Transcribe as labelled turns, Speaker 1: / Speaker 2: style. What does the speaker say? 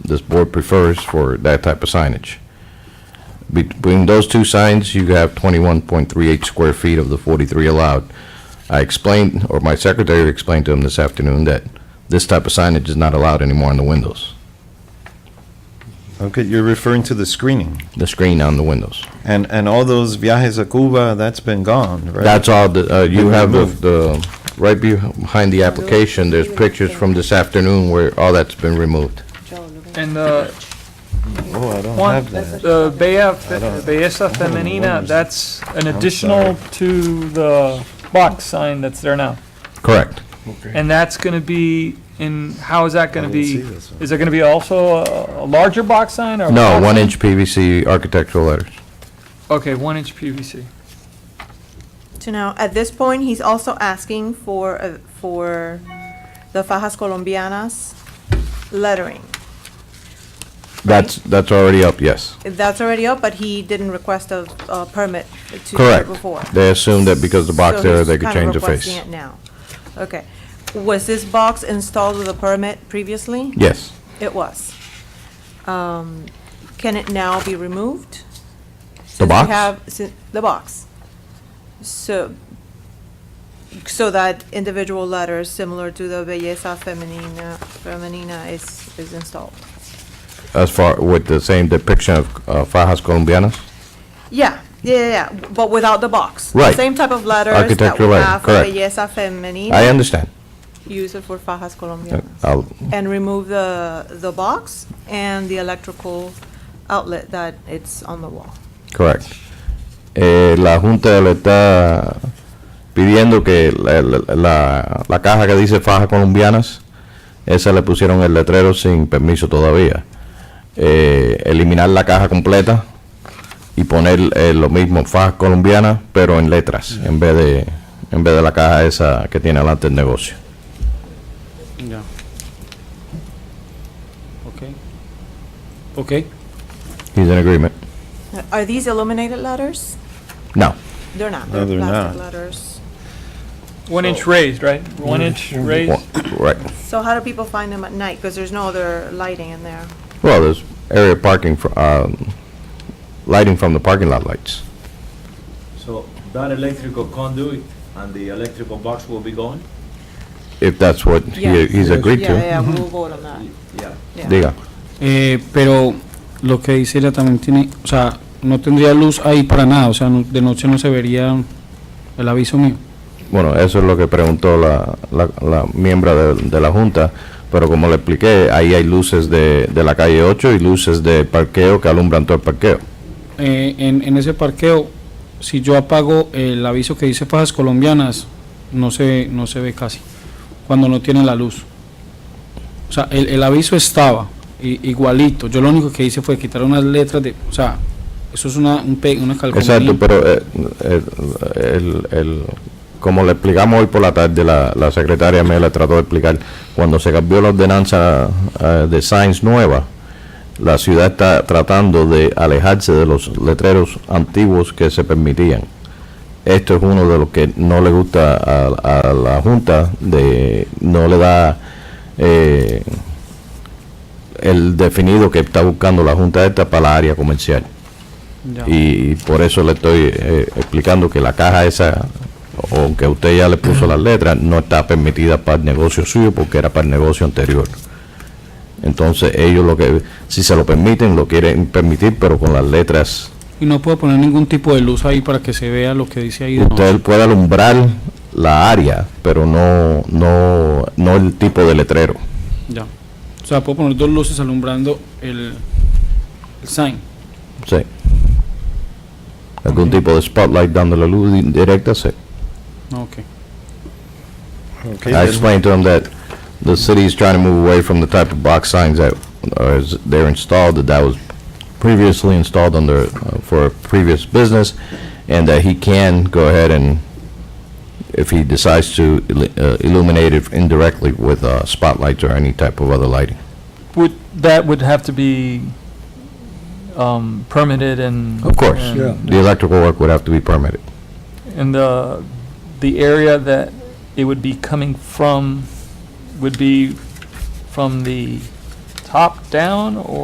Speaker 1: this board prefers for that type of signage. Between those two signs, you have 21.38 square feet of the 43 allowed. I explained, or my secretary explained to him this afternoon, that this type of signage is not allowed anymore on the windows,
Speaker 2: Okay, you're referring to the screening.
Speaker 1: the screen on the windows.
Speaker 2: And, and all those viajes a Cuba, that's been gone, right?
Speaker 1: That's all, the- uh, you have the- the, right behind the application, there's pictures from this afternoon where all that's been removed.
Speaker 3: And uh,
Speaker 2: Oh, I don't
Speaker 3: Juan,
Speaker 2: have that.
Speaker 3: the Bella, Fe- Belleza Femenina, that's an additional to the box sign that's there now.
Speaker 1: Correct.
Speaker 3: And that's going to be, in, um, how is that going to
Speaker 2: didn't see
Speaker 3: be?
Speaker 2: this one.
Speaker 3: Is there going to be also a a larger box sign or? a
Speaker 1: No,
Speaker 3: box sign?
Speaker 1: one-inch PVC architectural letters.
Speaker 3: Okay, one inch PVC.
Speaker 4: So now, at this point, he's also asking for, uh, for the fajas colombianas lettering.
Speaker 1: That's, that's already up, yes.
Speaker 4: That's already up, but he didn't request a, a permit to do it
Speaker 1: Correct.
Speaker 4: before.
Speaker 1: They assume that because the box
Speaker 4: So
Speaker 1: there,
Speaker 4: he's
Speaker 1: they could
Speaker 4: kind of
Speaker 1: change the face.
Speaker 4: requesting it now. Okay. Was this box installed with a permit previously?
Speaker 1: Yes,
Speaker 4: It was. Um, Can it now be removed?
Speaker 1: The
Speaker 4: Since we
Speaker 1: box?
Speaker 4: have- sin- The box. So, so that individual letters similar to the belleza femenina, femenina is, is installed.
Speaker 1: as far, with the same depiction of uh, fajas colombianas.
Speaker 4: Yeah, yeah, yeah, yeah, but without the box.
Speaker 1: Right.
Speaker 4: Same type of letters that we
Speaker 1: Architectural letter,
Speaker 4: have for
Speaker 1: correct.
Speaker 4: belleza femenina.
Speaker 1: I understand. Uh,
Speaker 4: Use it for fajas colombianas.
Speaker 1: I'll-
Speaker 4: And remove the, the box and the electrical outlet that it's on the wall.
Speaker 1: Correct. Eh, la Junta le está pidiendo que la, la- la- la caja que dice fajas colombianas, esa le pusieron el letrero sin permiso todavía. Eh, eliminar la caja completa y poner eh, lo mismo, fajas colombianas, pero en letras, en vez de en vez de la caja esa que tiene adelante el negocio.
Speaker 5: Yeah. Okay. Okay.
Speaker 1: He's in agreement.
Speaker 4: Are these illuminated letters?
Speaker 1: No.
Speaker 4: They're not.
Speaker 2: No, they're
Speaker 4: plastic
Speaker 2: not.
Speaker 4: letters.
Speaker 3: One inch raised, right? One inch raised.
Speaker 1: Right.
Speaker 4: So how do people find them at night? Because there's no other lighting in there.
Speaker 1: Well, there's area parking for um, lighting from the parking lot lights.
Speaker 6: So that electrical conduit and the electrical box will be gone?
Speaker 1: If that's what he,
Speaker 4: Yes.
Speaker 1: he's agreed
Speaker 4: Yeah,
Speaker 1: to. Mm-hmm.
Speaker 4: yeah, we'll vote on that.
Speaker 6: Yeah.
Speaker 4: Yeah.
Speaker 1: Diga,
Speaker 5: Eh, pero lo que dice ella también tiene, o sea, no tendría luz ahí para nada, o sea, no- de noche no se vería el aviso mío.
Speaker 1: bueno, eso es lo que preguntó la, la, la miembro de, de la junta, pero como le expliqué, ahí hay luces de, de la calle 8 y luces de parqueo que alumbran todo el parqueo.
Speaker 5: Eh, en, en ese parqueo, si yo apago el aviso que dice fajas colombianas, no se, ve- no se ve casi, cuando no tiene la luz. O sea, el, el aviso estaba i- igualito, yo lo único que hice fue quitar unas letras de, o sea, eso es una, un pe- una calcomanía.
Speaker 1: Exacto, pero eh, eh, el- el- como le explicamos hoy por la tarde, la, la secretaria me la trató de explicar, cuando se cambió la ordenanza eh, de Sainz nueva, la ciudad está tratando de alejarse de los letreros antiguos que se permitían. Esto es uno de los que no le gusta a, a la Junta, de no le da eh, el definido que está buscando la Junta esta para la área comercial
Speaker 5: Ya.
Speaker 1: y por eso le estoy eh, explicando que la caja esa, aunque usted ya le puso las letras, no está permitida para el negocio suyo porque era para el negocio anterior. Entonces ellos lo que, si se lo permiten, lo quieren permitir, pero con las letras.
Speaker 5: Y no puedo poner ningún tipo de luz ahí para que se vea lo que dice ahí. de
Speaker 1: Usted
Speaker 5: noche.
Speaker 1: puede alumbrar la área, pero no, no, no el tipo de letrero.
Speaker 5: Ya. O sea, puedo poner dos luces alumbrando el, el sign.
Speaker 1: Sí. Algún tipo de spotlight dándole luz di- directa, sí.
Speaker 5: Ah, Ok.
Speaker 2: Okay,
Speaker 1: I
Speaker 2: then-
Speaker 1: explained to them that the city is trying to move away from the type of box signs that are, is- they're installed, that that was previously installed under, uh, for a previous business, and that he can go ahead and, if he decides to illu- uh, illuminate it indirectly with uh, spotlights or any type of other lighting.
Speaker 3: Would, that would have to be um, permitted and.
Speaker 1: Of course.
Speaker 3: and-
Speaker 7: Yeah.
Speaker 1: The electrical work would have to be permitted.
Speaker 3: And the, the area that it would be coming from would be from the top down or?